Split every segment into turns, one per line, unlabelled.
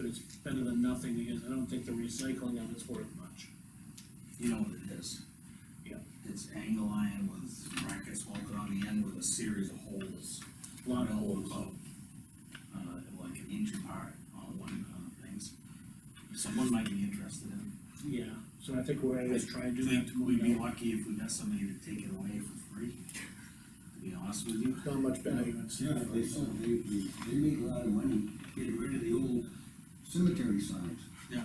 it's better than nothing, because I don't think the recycling of it's worth much.
You know what it is?
Yeah.
It's angle iron with brackets welded on the end with a series of holes.
A Lot of holes.
About, Uh, like an inch apart on one, uh, things. Someone might be interested in.
Yeah, so I think we're gonna just try to do that
Think We'd be
tomorrow.
lucky if we got somebody to take it away for free, to be honest with you.
Not much value in
Yeah,
stuff.
they sell, they, they, they make a lot of money getting rid of the old cemetery signs.
Yeah.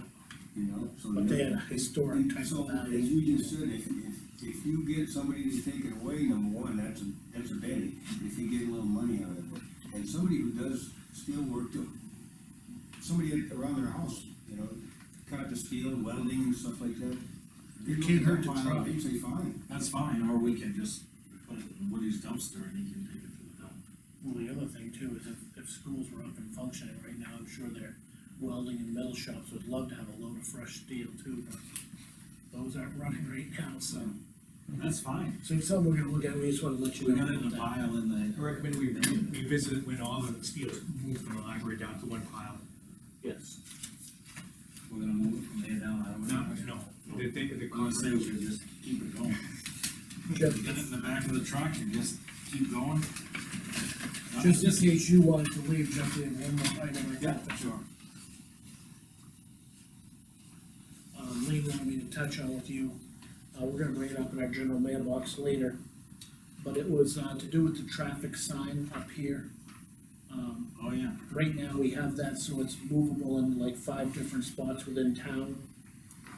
You know, so.
But they had a historic type
So,
of
as
value.
you just said, if, if, if you get somebody to take it away, number one, that's a, that's a penny, if you get a little money out of it. And somebody who does steel work too, somebody at- around their house, you know, cut the steel, welding and stuff like that.
It can't hurt to
They look at that pile,
try.
They say, fine,
That's fine, or we can just put it in Woody's dumpster and he can take it to the dump.
Well, the other thing too is if, if schools were up and functioning right now, I'm sure their welding and metal shops would love to have a load of fresh steel too, but those aren't running right now, so.
That's fine.
So it's something we're gonna look at, we just wanna let you
We
know.
got it
about
in a
that.
pile in
I
the.
recommend we re- revisit it when all the steel's moved from the library down to one pile.
Yes.
We're gonna move it from there down, I
No,
don't know.
no, the, the, the
I'm gonna say
concept,
we should just keep it going.
Just,
Get it in the back of the truck and just keep going.
just in case you wanted to leave, Jeff, we have one more item I
Yeah,
got.
sure.
Um, Lee wanted me to touch on with you, uh, we're gonna bring it up in our general mailbox later. But it was, uh, to do with the traffic sign up here. Um,
Oh, yeah.
Right now, we have that, so it's movable in like five different spots within town.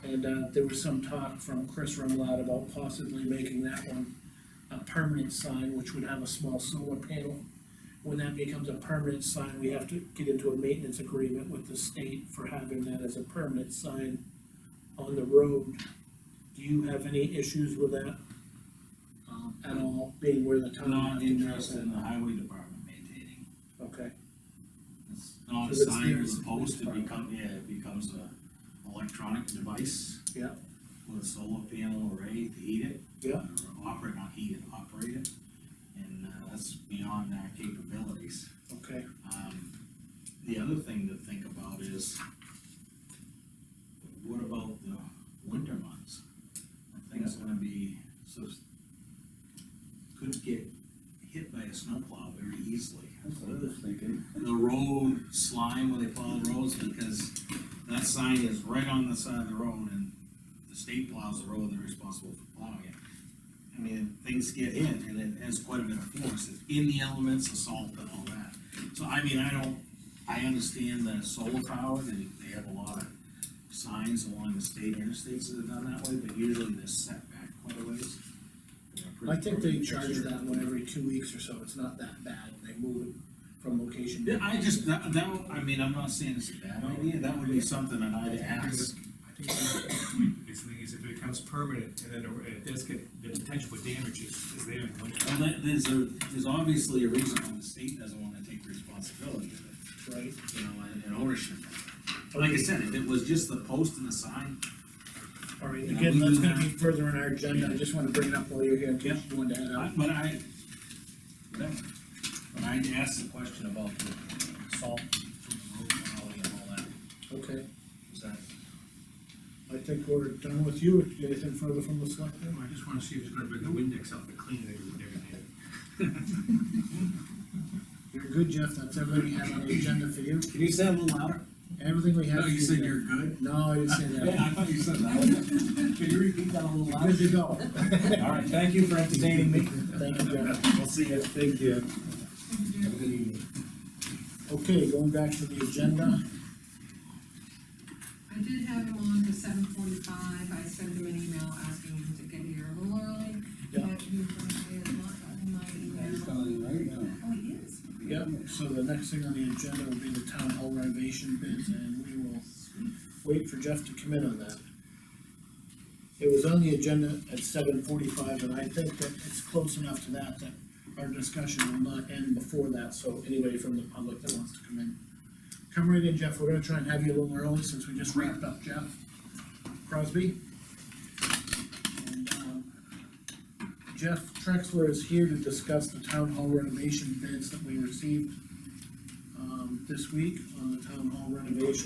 And, uh, there was some talk from Chris Remlott about possibly making that one a permanent sign, which would have a small solar panel. When that becomes a permanent sign, we have to get into a maintenance agreement with the state for having that as a permanent sign on the road. Do you have any issues with that, um, at all, being where the town?
Not interested in the highway department maintaining.
Okay,
It's Not a
So that's
sign
the-
or a post, it become, yeah, it becomes a electronic device.
Yeah.
With a solar panel array to heat it.
Yeah.
Or operate, not heat it, operate it, and, uh, that's beyond our capabilities.
okay,
Um, the other thing to think about is, what about the winter months? I think it's gonna be, so, could get hit by a snowplow very easily
that's what I was thinking.
the road slime where they plow the roads, because that sign is right on the side of the road, and the state plows the road, they're responsible for plowing it. I mean, things get hit, and it has quite a bit of force, it's in the elements, the salt and all that. So I mean, I don't, I understand the solar power, they, they have a lot of signs along the state interstates that are done that way, but usually they're set back quite a ways. They're
I
pretty-
think they
pretty
charge
picture.
that one every two weeks or so, it's not that bad, they move it from location.
Yeah,
to-
I just, that, that, would- I mean, I'm not saying it's a bad idea, that would be something that I'd ask.
I think it's, the thing is if it becomes permanent and then it does get, the potential for damage is, is there in the winter.
Well, that, there's a, there's obviously a reason why the state doesn't wanna take responsibility of
Right,
it, you know, and, and ownership. But like I said, if it was just the post and the sign,
all right,
Yeah,
again,
we
that's
do
gonna be
that.
further on our agenda, I just wanna bring it up while you're here, in case
Yeah.
you wanted to head
I-
out.
but I, whatever. But I'd ask the question about the salt from the road quality and all that,
Okay,
is that?
I think we're done with you, anything further from the selectmen?
I just wanna see if it's gonna bring the Windex out to clean it and everything.
You're good, Jeff, that's everything we have on the agenda for you,
Can you say that a little louder?
everything we have.
No,
for
you said
Jeff.
you're good?
No, I didn't say
Yeah,
that,
I thought you said that. Could you repeat that a little
good
louder?
to go,
All right, thank you for entertaining me.
thank you, Jeff.
We'll see you. Thank you. Have a good evening.
Okay, going back to the agenda,
I did have him on to seven forty-five, I sent him an email asking him to get here a little early.
Yeah.
But he probably has not gotten my
He's
email.
calling you right now.
Oh, he is?
Yep, so the next thing on the agenda will be the town hall renovation bids, and we will wait for Jeff to come in on that. It was on the agenda at seven forty-five, and I think that it's close enough to that, that our discussion will not end before that, so anybody from the public that wants to come in. Come right in, Jeff, we're gonna try and have you a little early, since we just wrapped up Jeff Crosby. And, um, Jeff Trexler is here to discuss the town hall renovation bids that we received um, this week on the town hall renovation.